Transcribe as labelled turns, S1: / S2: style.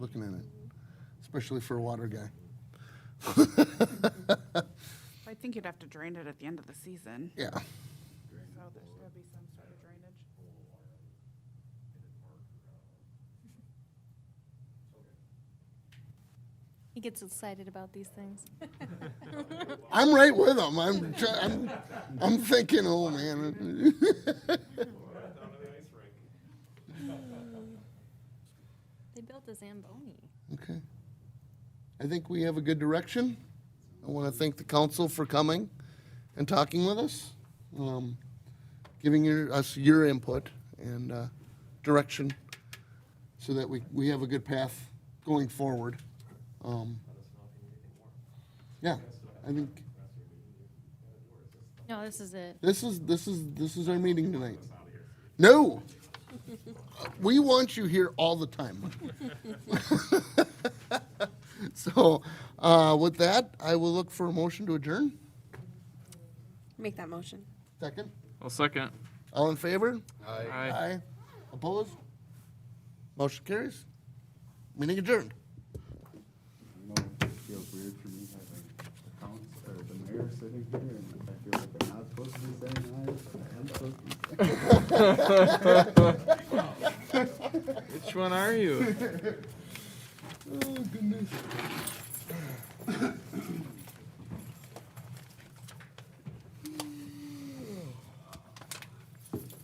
S1: looking at it, especially for a water guy.
S2: I think you'd have to drain it at the end of the season.
S1: Yeah.
S2: So there's gotta be some sort of drainage.
S3: He gets excited about these things.
S1: I'm right with him. I'm, try- I'm, I'm thinking, oh man.
S3: They built a Zamboni.
S1: Okay. I think we have a good direction. I want to thank the council for coming and talking with us, um, giving your, us your input and, uh, direction so that we, we have a good path going forward. Um, yeah, I think
S3: No, this is it.
S1: this is, this is, this is our meeting tonight. No! We want you here all the time. So, uh, with that, I will look for a motion to adjourn.
S4: Make that motion.
S1: Second.
S5: I'll second.
S1: All in favor?
S5: Aye.
S1: Opposed? Motion carries. Meeting adjourned.
S6: know, it feels weird for me having accounts or the mayor sitting here and I feel like I'm not supposed to be saying aye, but I am supposed to be saying
S5: Which one are you?
S1: Oh, goodness.